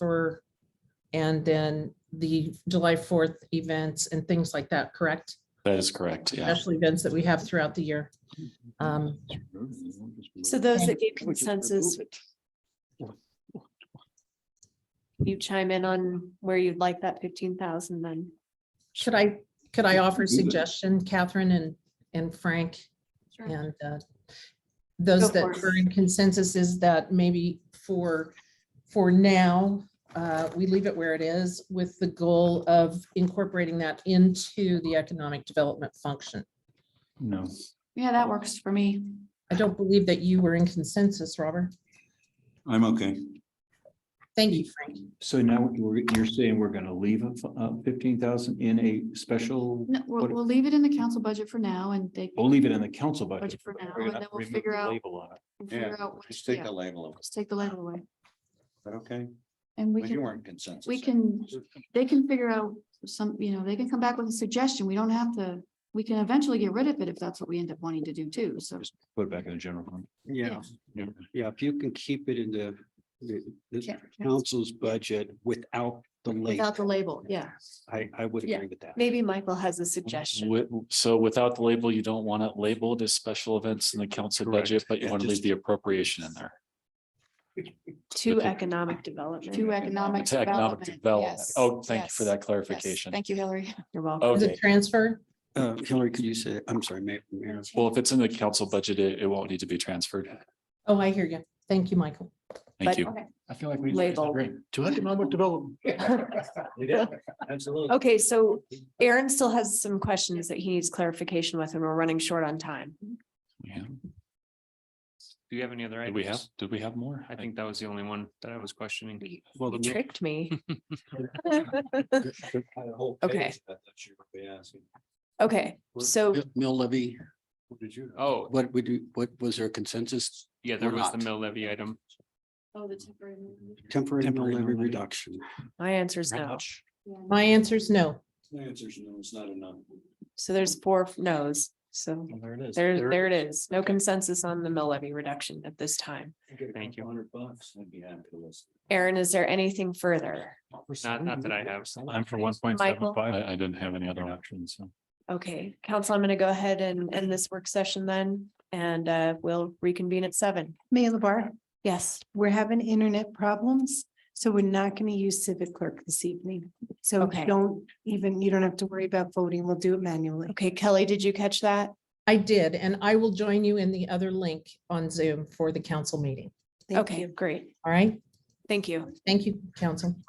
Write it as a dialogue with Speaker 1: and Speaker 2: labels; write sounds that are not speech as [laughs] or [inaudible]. Speaker 1: for, and then the July 4th events and things like that, correct?
Speaker 2: That is correct, yeah.
Speaker 1: Special events that we have throughout the year. Um,
Speaker 3: So those that gave
Speaker 4: Which is
Speaker 3: consensus.
Speaker 4: remove it.
Speaker 3: You chime in on where you'd like that fifteen thousand then.
Speaker 1: Should I, could I offer a
Speaker 4: Do that.
Speaker 1: suggestion, Catherine and, and Frank? And uh,
Speaker 3: Go
Speaker 1: those
Speaker 3: for
Speaker 1: that
Speaker 3: it.
Speaker 1: are in consensus is that maybe for, for now, uh, we leave it where it is with the goal of incorporating that into the economic development function.
Speaker 2: No.
Speaker 3: Yeah, that works for me.
Speaker 1: I don't believe that you were in consensus, Robert.
Speaker 4: I'm okay.
Speaker 1: Thank you, Frank.
Speaker 4: So now we're- you're saying we're gonna leave fifteen thousand in a special,
Speaker 5: No, we'll,
Speaker 4: What-
Speaker 5: we'll leave it in the council budget for now and they
Speaker 6: Oh,
Speaker 4: we'll leave it in the council budget.
Speaker 5: budget for now,
Speaker 4: We're
Speaker 5: and
Speaker 4: gonna
Speaker 5: then we'll
Speaker 4: remove
Speaker 5: figure
Speaker 4: the
Speaker 5: out.
Speaker 4: Label on it.
Speaker 5: we'll
Speaker 7: Yeah,
Speaker 5: figure out what-
Speaker 7: just take
Speaker 5: yeah,
Speaker 7: the label off. Is
Speaker 5: Just take the label away
Speaker 7: that okay?
Speaker 5: and we
Speaker 7: But you
Speaker 5: can,
Speaker 7: weren't consensus.
Speaker 5: we can, they can figure out some, you know, they can come back with a suggestion. We don't have to. We can eventually get rid of it if that's what we end up wanting to do too. So
Speaker 4: Put it back in the general fund.
Speaker 6: Yeah,
Speaker 4: Yeah.
Speaker 6: yeah, if you can keep it in the, the, the
Speaker 5: Ca-
Speaker 6: council's budget without the label,
Speaker 5: without the label, yeah.
Speaker 6: I, I would
Speaker 3: Yeah.
Speaker 6: agree with that.
Speaker 3: Maybe Michael has a suggestion.
Speaker 2: Wi- So without the label, you don't want it labeled as special events in the council
Speaker 6: Correct.
Speaker 2: budget, but you
Speaker 6: Yeah,
Speaker 2: want to leave
Speaker 6: just-
Speaker 2: the appropriation in there.
Speaker 3: To economic development.
Speaker 5: To economic
Speaker 2: To economic
Speaker 5: development.
Speaker 2: development.
Speaker 5: yes,
Speaker 2: Oh, thank you for
Speaker 5: yes,
Speaker 2: that
Speaker 5: yes.
Speaker 2: clarification.
Speaker 5: Thank you, Hillary.
Speaker 3: You're welcome.
Speaker 1: Is
Speaker 2: Okay,
Speaker 1: it transferred?
Speaker 6: Uh, Hillary, could you say, I'm sorry, Ma- Mayor,
Speaker 2: well, if it's in the council budget, it, it won't need to be transferred.
Speaker 1: Oh, I hear you. Thank you, Michael.
Speaker 2: Thank
Speaker 3: But-
Speaker 2: you.
Speaker 4: I feel like we.
Speaker 3: Label.
Speaker 4: To economic
Speaker 3: [laughs]
Speaker 4: development.
Speaker 6: Absolutely.
Speaker 3: oh, Okay, so Aaron still has some questions that he needs clarification with, and we're running short on time.
Speaker 2: Yeah.
Speaker 8: Do you have any other
Speaker 2: Did
Speaker 8: items?
Speaker 2: we have, did we have more?
Speaker 8: I think that was the only one that I was questioning.
Speaker 6: Well,
Speaker 3: You
Speaker 6: the mayor- [laughs]
Speaker 3: tricked me.
Speaker 6: had a whole
Speaker 3: Okay.
Speaker 6: page that you were gonna be asking.
Speaker 3: Okay,
Speaker 6: What-
Speaker 3: so
Speaker 9: Mill levy,
Speaker 6: What did you?
Speaker 8: Oh,
Speaker 9: what we do, what was there consensus?
Speaker 8: yeah, there
Speaker 9: Or
Speaker 8: was the
Speaker 9: not.
Speaker 8: mill levy item.
Speaker 5: Oh, the temporary.
Speaker 6: Temporary mill
Speaker 4: Temporary mill
Speaker 6: levy
Speaker 4: levy.
Speaker 6: reduction.
Speaker 3: my answer is no.
Speaker 1: My answer is no.
Speaker 6: The answer is no, it's not enough.
Speaker 3: So there's four no's. So
Speaker 6: There it is.
Speaker 3: there, there it is. No consensus on the mill levy reduction at this time.
Speaker 8: Thank you.
Speaker 6: Hundred bucks, I'd be happy to listen.
Speaker 3: Aaron, is there anything further?
Speaker 8: Not, not that I have.
Speaker 2: I'm for one point
Speaker 3: Michael?
Speaker 2: I, I didn't have any other options. so.
Speaker 3: Okay, council, I'm gonna go ahead and end this work session then, and uh, we'll reconvene at seven.
Speaker 10: Mayor LaBarre,
Speaker 3: Yes,
Speaker 10: we're having internet problems, so we're not going to use Civic Clerk this evening. So
Speaker 3: Okay.
Speaker 10: don't even, you don't have to worry about voting. We'll do it manually.
Speaker 3: okay, Kelly, did you catch that?
Speaker 1: I did, and I will join you in the other link on Zoom for the council meeting.
Speaker 10: Thank
Speaker 3: Okay,
Speaker 10: you.
Speaker 3: great.
Speaker 1: All right?
Speaker 3: Thank you.
Speaker 1: Thank you, council.